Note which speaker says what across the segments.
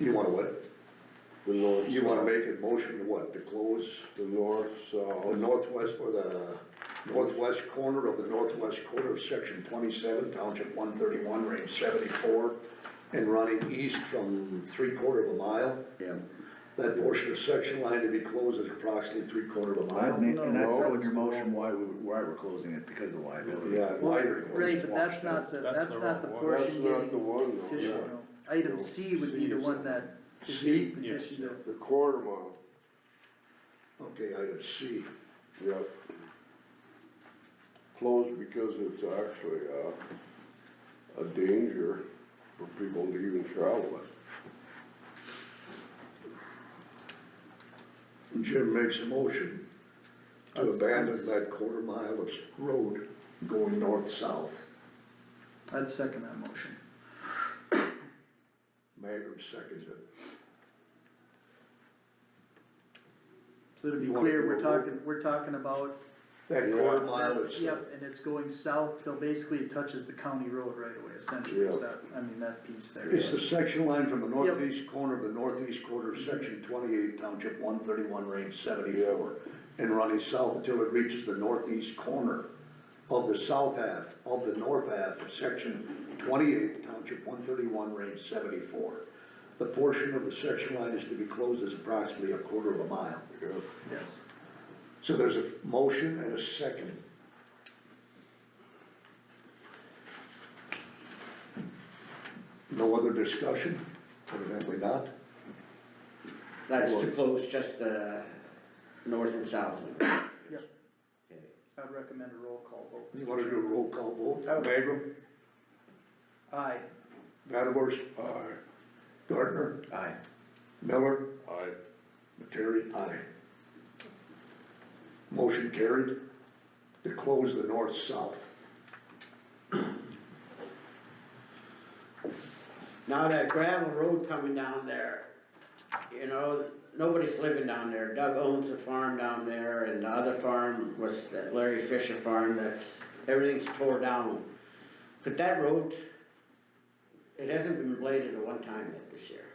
Speaker 1: You wanna what?
Speaker 2: The north.
Speaker 1: You wanna make a motion to what, to close
Speaker 2: The north, uh,
Speaker 1: the
Speaker 2: south,
Speaker 1: northwest, or the northwest corner of the northwest quarter of section twenty-seven, township one thirty-one, range seventy-four, and running east from three-quarter of a mile?
Speaker 3: Yeah.
Speaker 1: That portion of section line to be closed is approximately three-quarter of a
Speaker 3: I
Speaker 1: mile.
Speaker 3: mean, and I
Speaker 2: No,
Speaker 3: thought in
Speaker 2: it's
Speaker 3: your motion why we, why we're closing it, because of the liability.
Speaker 1: Yeah, wider.
Speaker 4: Right, but that's not the,
Speaker 5: That's
Speaker 4: that's
Speaker 5: the
Speaker 4: not the
Speaker 5: wrong
Speaker 2: one.
Speaker 4: portion
Speaker 2: That's not
Speaker 4: getting
Speaker 2: the one, though,
Speaker 4: petitioned.
Speaker 2: yeah.
Speaker 4: no. Item C would be the one that is
Speaker 1: C?
Speaker 4: getting
Speaker 5: Yes.
Speaker 4: petitioned. to-
Speaker 2: the quarter mile,
Speaker 1: Okay, item C.
Speaker 2: yep. Closed because it's actually, uh, a danger for people to even travel it.
Speaker 1: Jim makes a motion to
Speaker 4: That's-
Speaker 1: abandon
Speaker 4: that's-
Speaker 1: that quarter mile of road going north-south.
Speaker 4: I'd second that motion.
Speaker 1: Magram seconds it.
Speaker 4: So to be
Speaker 1: You wanna
Speaker 4: clear,
Speaker 1: do
Speaker 4: we're
Speaker 1: a
Speaker 4: talking, we're talking about.
Speaker 1: That
Speaker 2: Yeah.
Speaker 1: quarter mile is.
Speaker 4: Yep, and it's going south till basically it touches the county road right away, essentially, is
Speaker 2: Yeah.
Speaker 4: that, I mean, that piece there.
Speaker 1: It's the section line from the northeast corner of the northeast quarter, of section twenty-eight, township one thirty-one, range seventy-four, and running south until it reaches the northeast corner of the south half, of the north half of section twenty-eight, township one thirty-one, range seventy-four. The portion of the section line is to be closed as approximately a quarter of a mile.
Speaker 2: Yep.
Speaker 4: Yes.
Speaker 1: So there's a motion and a second. No other discussion? Evidently not.
Speaker 3: That's
Speaker 1: to
Speaker 3: close just
Speaker 6: uh,
Speaker 3: the north and south.
Speaker 4: Yep. I'd recommend a roll call vote.
Speaker 1: You wanna do a roll call vote?
Speaker 4: I would.
Speaker 1: Magrum,
Speaker 4: Aye.
Speaker 1: Mattibors? Aye. Gardner?
Speaker 3: Aye.
Speaker 1: Miller?
Speaker 2: I,
Speaker 1: Materi? Aye. Motion carried to close the north-south.
Speaker 6: Now that gravel road coming down there, you know, nobody's living down there. Doug owns a farm down there and the other farm was that Larry Fisher farm that's, everything's tore down. But that road, it hasn't been bladed at one time yet this year.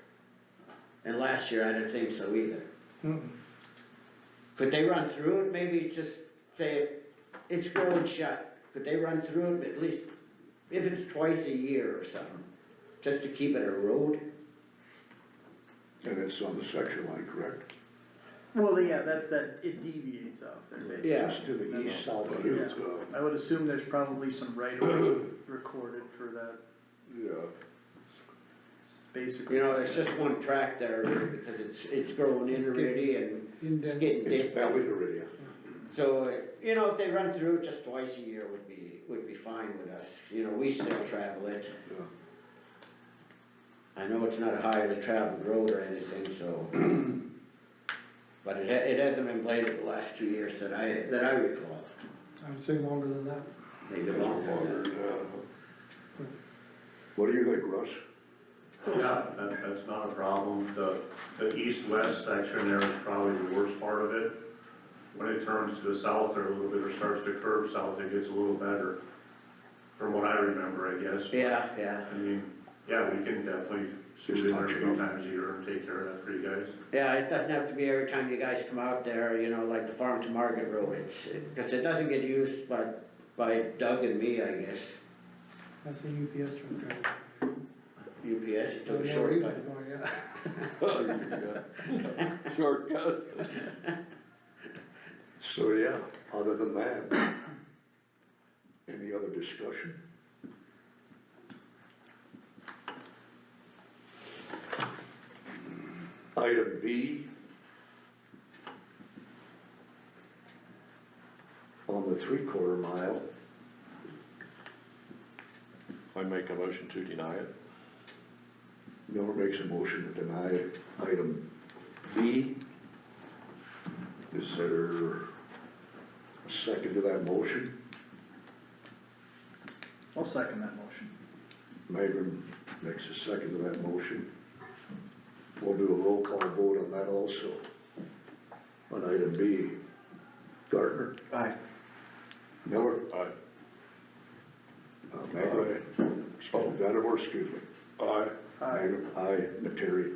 Speaker 6: And last year I didn't think so either. Could they run through it? Maybe just say, it's growing shut. Could they run through it at least, if it's twice a year or something? just to keep it a road?
Speaker 1: And it's on the section line, correct?
Speaker 4: Well, yeah, that's that, it deviates off there basically.
Speaker 6: Yeah.
Speaker 1: It's to the east-south of
Speaker 4: Yeah,
Speaker 1: you.
Speaker 4: I would assume there's probably some right of way recorded for that,
Speaker 2: yeah,
Speaker 4: basically.
Speaker 6: You know, there's just one track there because it's, it's growing in already and it's getting
Speaker 1: It's
Speaker 6: deep.
Speaker 1: Valley Iridia.
Speaker 6: So, you know, if they run through it just twice a year would be, would be fine with us. You know, we still travel it.
Speaker 1: Yeah.
Speaker 6: I know it's not a highly traveled road or anything, so. But it, ha- it hasn't been bladed the last two years that I, that I recall,
Speaker 5: I would say longer than that.
Speaker 6: maybe
Speaker 2: it's
Speaker 6: longer than that.
Speaker 2: water, yeah.
Speaker 1: What do you think, Russ?
Speaker 7: Yeah, that, that's not a problem. The, the east-west section there is probably the worst part of it. When it turns to the south or a little bit, or starts to curve south, it gets a little better, from what I remember, I guess.
Speaker 6: Yeah, yeah,
Speaker 7: I mean, yeah, we can definitely shoot in there a few times a year and take care of that for you guys.
Speaker 6: yeah, it doesn't have to be every time you guys come out there, you know, like the farm to market road, it's, it- cause it doesn't get used by, by Doug and me, I guess.
Speaker 5: That's a UPS truck driver.
Speaker 6: UPS, it took a
Speaker 5: Yeah,
Speaker 6: shortcut.
Speaker 5: we're going, yeah.
Speaker 2: Yeah. Shortcut.
Speaker 1: So, yeah, other than that, any other discussion? Item B. On the three-quarter mile,
Speaker 8: I make a motion to deny it.
Speaker 1: Miller makes a motion to deny item B. Is there a second to that motion?
Speaker 4: I'll second that motion.
Speaker 1: Magrum makes a second to that motion. We'll do a roll call vote on that also. On item B, Gardner,
Speaker 3: Aye.
Speaker 1: Miller,
Speaker 8: Aye.
Speaker 1: uh, Magrum. Oh, Vandermeer, excuse me.
Speaker 8: Aye.
Speaker 4: Aye.
Speaker 1: Magrum, aye, Materi,